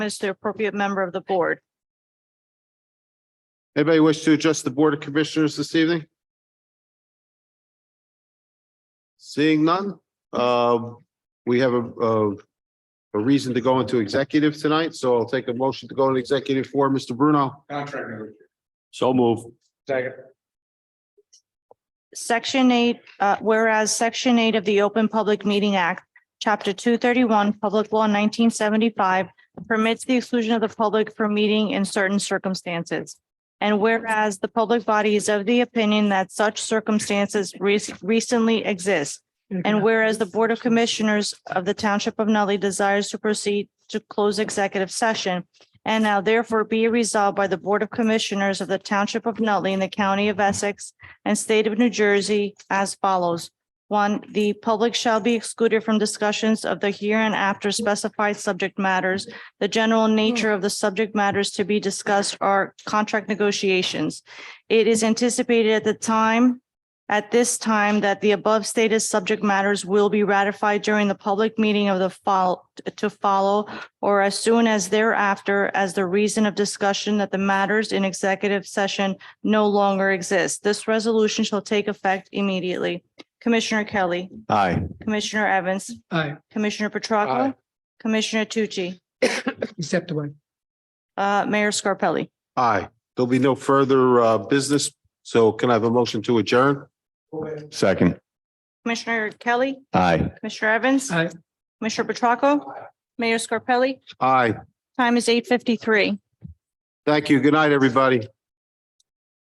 as the appropriate member of the board. Anybody wish to address the Board of Commissioners this evening? Seeing none, um, we have a, a, a reason to go into executive tonight, so I'll take a motion to go into executive for Mr. Bruno. Contract negotiation. So move. Second. Section eight, uh, whereas section eight of the Open Public Meeting Act, chapter two thirty-one, public law nineteen seventy-five permits the exclusion of the public from meeting in certain circumstances. And whereas the public body is of the opinion that such circumstances re- recently exist. And whereas the Board of Commissioners of the Township of Nutley desires to proceed to close executive session. And now therefore be resolved by the Board of Commissioners of the Township of Nutley in the County of Essex and State of New Jersey as follows. One, the public shall be excluded from discussions of the here and after specified subject matters. The general nature of the subject matters to be discussed are contract negotiations. It is anticipated at the time, at this time, that the above stated subject matters will be ratified during the public meeting of the fol- to follow or as soon as thereafter as the reason of discussion that the matters in executive session no longer exists. This resolution shall take effect immediately. Commissioner Kelly, Aye. Commissioner Evans, Aye, Commissioner Petracca, Aye. Commissioner Tucci, except the one. uh, Mayor Scarpelli. Aye. There'll be no further, uh, business, so can I have a motion to adjourn? Second. Commissioner Kelly, Aye. Commissioner Evans, Aye. Commissioner Petracca, Mayor Scarpelli. Aye. Time is eight fifty-three. Thank you. Good night, everybody.